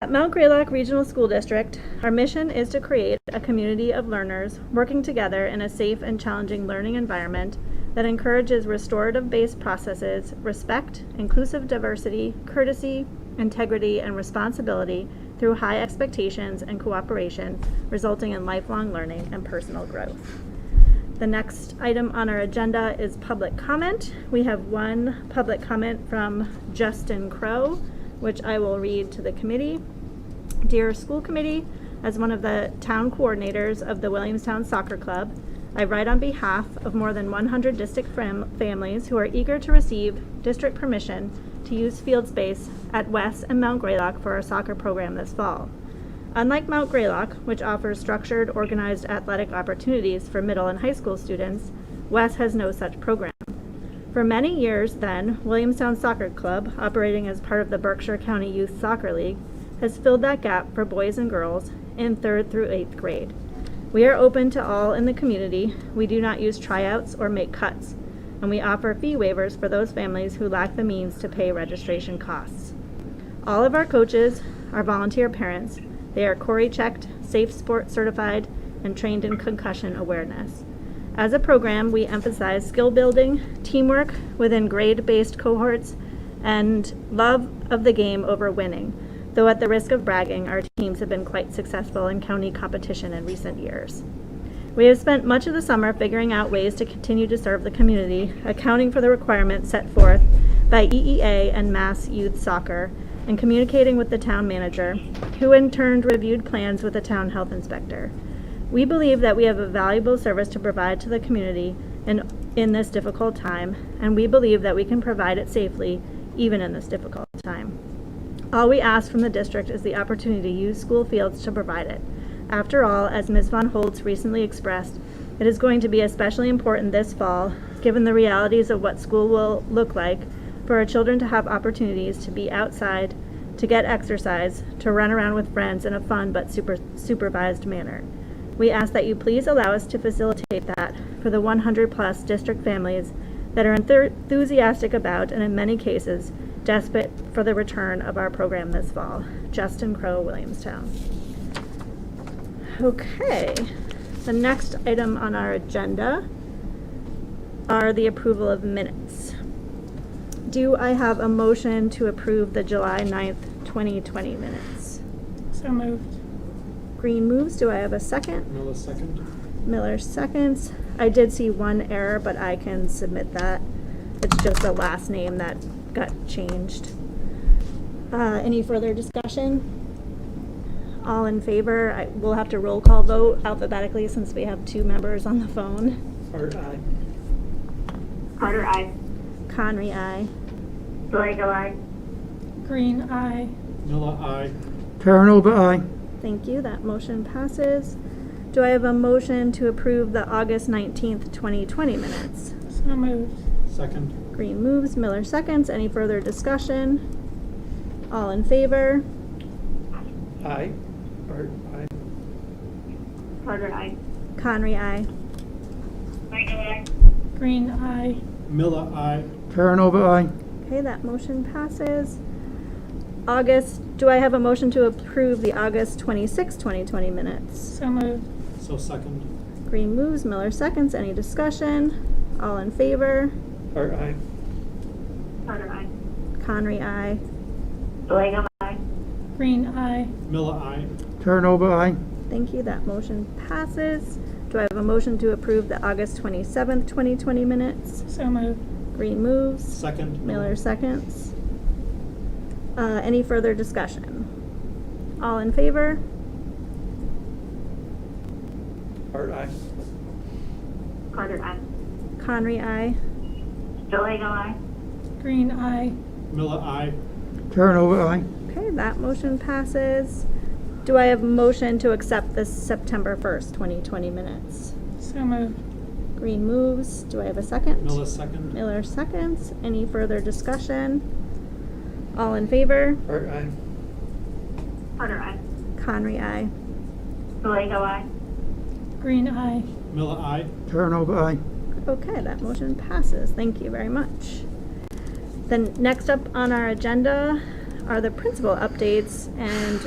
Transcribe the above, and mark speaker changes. Speaker 1: At Mount Greylock Regional School District, our mission is to create a community of learners working together in a safe and challenging learning environment that encourages restorative based processes, respect, inclusive diversity, courtesy, integrity, and responsibility through high expectations and cooperation, resulting in lifelong learning and personal growth. The next item on our agenda is public comment. We have one public comment from Justin Crow, which I will read to the committee. Dear School Committee, as one of the town coordinators of the Williamstown Soccer Club, I write on behalf of more than 100 district fam- families who are eager to receive district permission to use field space at West and Mount Greylock for our soccer program this fall. Unlike Mount Greylock, which offers structured, organized athletic opportunities for middle and high school students, Wes has no such program. For many years, then, Williamstown Soccer Club, operating as part of the Berkshire County Youth Soccer League, has filled that gap for boys and girls in third through eighth grade. We are open to all in the community. We do not use tryouts or make cuts, and we offer fee waivers for those families who lack the means to pay registration costs. All of our coaches are volunteer parents. They are Cori checked, safe sport certified, and trained in concussion awareness. As a program, we emphasize skill building, teamwork within grade based cohorts, and love of the game over winning. Though, at the risk of bragging, our teams have been quite successful in county competition in recent years. We have spent much of the summer figuring out ways to continue to serve the community, accounting for the requirements set forth by EEA and Mass Youth Soccer, and communicating with the town manager, who in turn reviewed plans with the town health inspector. We believe that we have a valuable service to provide to the community in, in this difficult time, and we believe that we can provide it safely even in this difficult time. All we ask from the district is the opportunity to use school fields to provide it. After all, as Ms. Von Holtz recently expressed, it is going to be especially important this fall, given the realities of what school will look like, for our children to have opportunities to be outside, to get exercise, to run around with friends in a fun but super supervised manner. We ask that you please allow us to facilitate that for the 100 plus district families that are enthu- enthusiastic about and in many cases desperate for the return of our program this fall. Justin Crow, Williamstown. Okay, the next item on our agenda are the approval of minutes. Do I have a motion to approve the July 9th, 2020 minutes?
Speaker 2: So moved.
Speaker 1: Green moves, do I have a second?
Speaker 3: Miller second.
Speaker 1: Miller seconds. I did see one error, but I can submit that. It's just the last name that got changed. Uh, any further discussion? All in favor? I, we'll have to roll call vote alphabetically since we have two members on the phone.
Speaker 3: Art, aye.
Speaker 4: Carter, I.
Speaker 1: Conry, aye.
Speaker 4: Delega, I.
Speaker 2: Green eye.
Speaker 3: Miller, aye.
Speaker 5: Terranoba, aye.
Speaker 1: Thank you. That motion passes. Do I have a motion to approve the August 19th, 2020 minutes?
Speaker 2: So moved.
Speaker 3: Second.
Speaker 1: Green moves, Miller seconds. Any further discussion? All in favor?
Speaker 3: Aye. Art, aye.
Speaker 4: Carter, I.
Speaker 1: Conry, aye.
Speaker 4: Delega, I.
Speaker 2: Green eye.
Speaker 3: Miller, aye.
Speaker 5: Terranova, aye.
Speaker 1: Okay, that motion passes. August, do I have a motion to approve the August 26, 2020 minutes?
Speaker 2: So moved.
Speaker 3: So second.
Speaker 1: Green moves, Miller seconds. Any discussion? All in favor?
Speaker 3: Art, aye.
Speaker 4: Carter, I.
Speaker 1: Conry, aye.
Speaker 4: Delega, I.
Speaker 2: Green eye.
Speaker 3: Miller, aye.
Speaker 5: Terranova, aye.
Speaker 1: Thank you, that motion passes. Do I have a motion to approve the August 27, 2020 minutes?
Speaker 2: So moved.
Speaker 1: Green moves,
Speaker 3: Second.
Speaker 1: Miller seconds. Uh, Any further discussion? All in favor?
Speaker 3: Art, aye.
Speaker 4: Carter, I.
Speaker 1: Conry, aye.
Speaker 4: Delega, I.
Speaker 2: Green eye.
Speaker 3: Miller, aye.
Speaker 5: Terranova, aye.
Speaker 1: Okay, that motion passes. Do I have a motion to accept the September 1st, 2020 minutes?
Speaker 2: So moved.
Speaker 1: Green moves, do I have a second?
Speaker 3: Miller second.
Speaker 1: Miller seconds. Any further discussion? All in favor?
Speaker 3: Art, aye.
Speaker 4: Carter, I.
Speaker 1: Conry, aye.
Speaker 4: Delega, I.
Speaker 2: Green eye.
Speaker 3: Miller, aye.
Speaker 5: Terranova, aye.
Speaker 1: Okay, that motion passes. Thank you very much. Then next up on our agenda are the principal updates, and